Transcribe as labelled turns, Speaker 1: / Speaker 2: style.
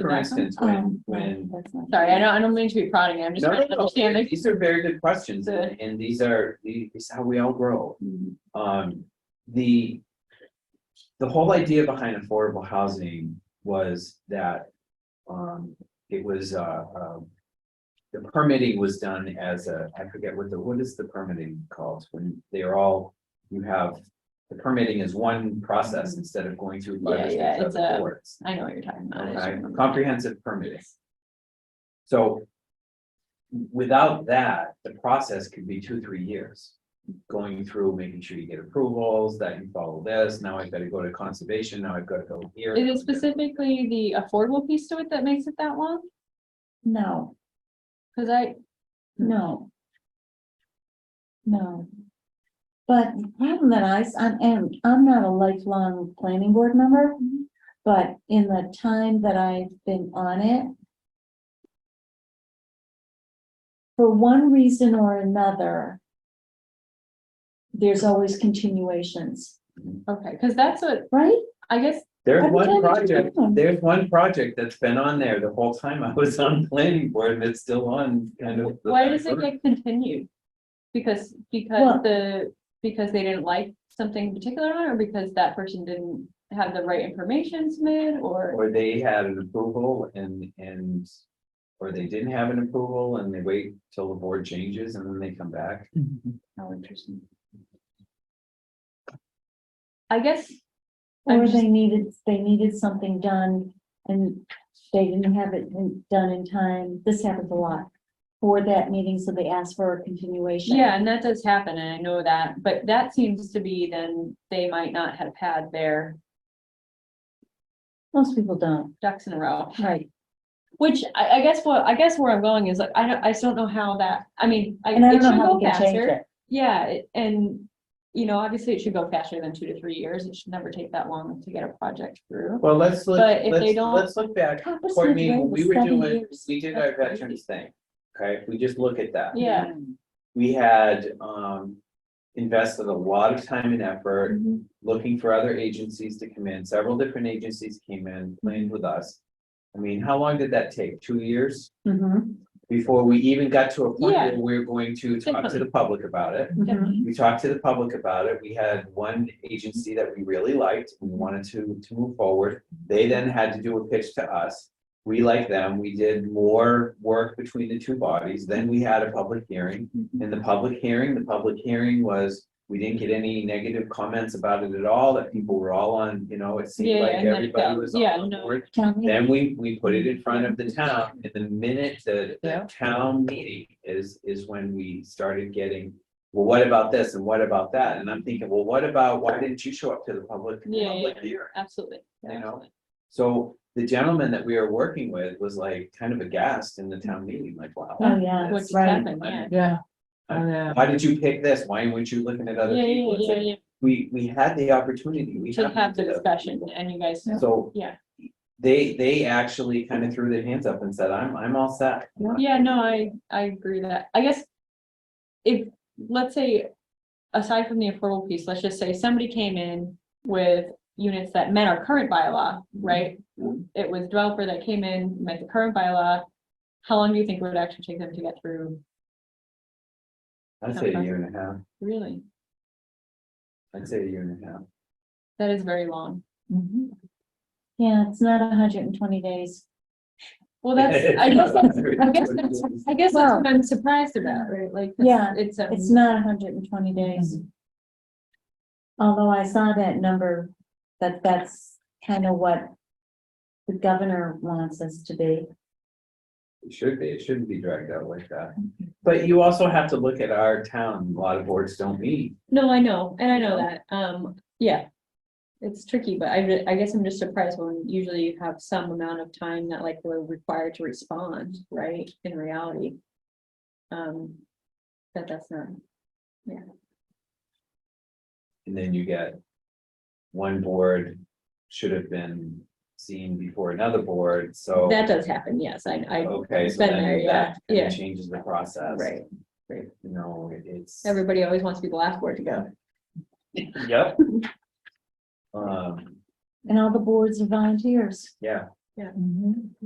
Speaker 1: for instance, when, when.
Speaker 2: Sorry, I don't, Um, I don't mean to be prodding, I'm just
Speaker 1: No,
Speaker 2: trying
Speaker 1: no,
Speaker 2: to
Speaker 1: no,
Speaker 2: understand the
Speaker 1: these are very good questions
Speaker 2: the- Mm-hmm.
Speaker 1: and, and these are, these is how we all grow. Um, the. The whole idea behind affordable housing was that, um, it was, uh, um. The permitting was done as a, I forget what the, what is the permitting called, when they're all, you have. The permitting is one process instead of going through.
Speaker 2: Mm-hmm. Yeah, yeah,
Speaker 1: five or six
Speaker 2: it's a-
Speaker 1: other boards.
Speaker 2: I know what you're talking about. I just
Speaker 1: Okay,
Speaker 2: remember.
Speaker 1: comprehensive permitting. So. Without that, the process could be two, three years. Going through, making sure you get approvals, that you follow this, now I've got to go to conservation, now I've got to go here.
Speaker 2: Is it specifically the affordable piece to it that makes it that long?
Speaker 3: No,
Speaker 2: Cause I,
Speaker 3: no. No. But the problem that I, s- I'm- and I'm not a lifelong planning board member, but in the time that I've been on it. For one reason or another. There's always continuations,
Speaker 2: okay, cause that's what,
Speaker 3: right?
Speaker 2: I guess,
Speaker 1: There's
Speaker 3: Every
Speaker 1: one
Speaker 3: time I
Speaker 1: project,
Speaker 3: turn.
Speaker 1: there's one project that's been on there the whole time I was on planning board and it's still on kind of. the-
Speaker 2: why does it get continued? Because, because
Speaker 3: Well-
Speaker 2: the, because they didn't like something in particular on it, or because that person didn't have the right information submitted, or?
Speaker 1: Or they had an approval and, and, or they didn't have an approval and they wait till the board changes and then they come back.
Speaker 2: How interesting. I guess, I'm
Speaker 3: Or
Speaker 2: just-
Speaker 3: they needed, they needed something done and they didn't have it in- done in time. This happens a lot. For that meeting, so they asked for a continuation.
Speaker 2: yeah, and that does happen, and I know that, but that seems to be then they might not have had their
Speaker 3: Most people don't,
Speaker 2: ducks in a row.
Speaker 3: right?
Speaker 2: Which I, I guess what, I guess where I'm going is like, I don't, I just don't know how that, I mean, I,
Speaker 3: And I
Speaker 2: it
Speaker 3: don't know
Speaker 2: should
Speaker 3: how
Speaker 2: go
Speaker 3: we can change
Speaker 2: faster.
Speaker 3: it.
Speaker 2: Yeah, it- and, you know, obviously it should go faster than two to three years. It should never take that long to get a project through.
Speaker 1: Well, let's, look-
Speaker 2: But if they
Speaker 1: let's,
Speaker 2: don't-
Speaker 1: let's look back
Speaker 3: Copper Smith
Speaker 1: Courtney,
Speaker 3: Road
Speaker 1: when we
Speaker 3: was
Speaker 1: were
Speaker 3: seven
Speaker 1: doing,
Speaker 3: years.
Speaker 1: we did our
Speaker 2: That's crazy.
Speaker 1: veterans thing, okay, if we just look at that.
Speaker 2: Yeah.
Speaker 1: We had, um, invested a lot of time and effort,
Speaker 3: Mhm.
Speaker 1: looking for other agencies to come in, several different agencies came in, planned with us. I mean, how long did that take? Two years
Speaker 3: Mhm.
Speaker 1: before we even got to a point
Speaker 2: Yeah.
Speaker 1: where we were going to talk to the public about it?
Speaker 3: Mhm.
Speaker 1: We talked to the public about it. We had one agency that we really liked. We wanted to, to move forward. They then had to do a pitch to us. We liked them. We did more work between the two bodies. Then we had a public hearing.
Speaker 2: Mm-hmm.
Speaker 1: In the public hearing, the public hearing was, we didn't get any negative comments about it at all, that people were all on, you know, it
Speaker 2: Yeah,
Speaker 1: seemed like
Speaker 2: and then it
Speaker 1: everybody
Speaker 2: fell.
Speaker 1: was
Speaker 2: Yeah,
Speaker 1: on
Speaker 2: no.
Speaker 1: board.
Speaker 3: Town meeting.
Speaker 1: Then we, we put it in front of the town, and the minute the, the town meeting is, is when we started getting. Well, what about this and what about that? And I'm thinking, well, what about, why didn't you show up to the public?
Speaker 2: Yeah, yeah,
Speaker 1: public
Speaker 2: yeah.
Speaker 1: hearing?
Speaker 2: Absolutely. Yeah,
Speaker 1: You know?
Speaker 2: absolutely.
Speaker 1: So the gentleman that we were working with was like kind of aghast in the town meeting, like, wow.
Speaker 3: Oh, yeah.
Speaker 2: What's
Speaker 3: Right.
Speaker 2: happening, yeah.
Speaker 4: Yeah.
Speaker 1: Uh,
Speaker 4: Oh, yeah.
Speaker 1: Why did you pick this? Why weren't you looking at other
Speaker 2: Yeah, yeah,
Speaker 1: people? It's
Speaker 2: yeah,
Speaker 1: like,
Speaker 2: yeah,
Speaker 1: We, we had the opportunity, we.
Speaker 2: yeah. To
Speaker 1: had
Speaker 2: have the
Speaker 1: to-
Speaker 2: discussion and you guys,
Speaker 1: So.
Speaker 2: Yeah.
Speaker 1: They, they actually kind of threw their hands up and said, I'm, I'm all set.
Speaker 2: yeah, no, I, I agree with that. I guess if, let's say, aside from the affordable piece, let's just say somebody came in with units that met our current bylaw,
Speaker 3: Mm-hmm.
Speaker 2: right? It was developer that came in, met the current bylaw. How long do you think it would actually take them to get through?
Speaker 1: I'd say a year and a half.
Speaker 2: Really?
Speaker 1: I'd say a year and a half.
Speaker 2: That is very long.
Speaker 3: Mm-hmm. Yeah, it's not hundred and twenty days.
Speaker 2: Well, that's, I guess that's, I guess that's,
Speaker 1: that's.
Speaker 2: I guess that's
Speaker 3: Well-
Speaker 2: what I'm surprised about, right? Like. it's-
Speaker 3: Yeah,
Speaker 2: It's, um,
Speaker 3: It's not hundred and twenty days. Although I saw that number, that that's kind of what the governor wants us to be.
Speaker 1: It should be, it shouldn't be dragged out like that. But you also have to look at our town, a lot of boards don't meet.
Speaker 2: no, I know, and I know that, um, yeah. It's tricky, but I, re- I guess I'm just surprised when usually you have some amount of time that like we're required to respond, right, in reality. Um, that that's not,
Speaker 1: And then you get one board should have been seen before another board, so.
Speaker 2: that does happen, yes, I, I,
Speaker 1: Okay, so
Speaker 2: been there,
Speaker 1: then
Speaker 2: yeah,
Speaker 1: that kinda
Speaker 2: yeah.
Speaker 1: changes the process.
Speaker 2: right,
Speaker 1: You know, it- it's.
Speaker 2: everybody always wants to be the last word to go.
Speaker 1: Yep. Um,
Speaker 3: And all the boards are volunteers.
Speaker 1: yeah.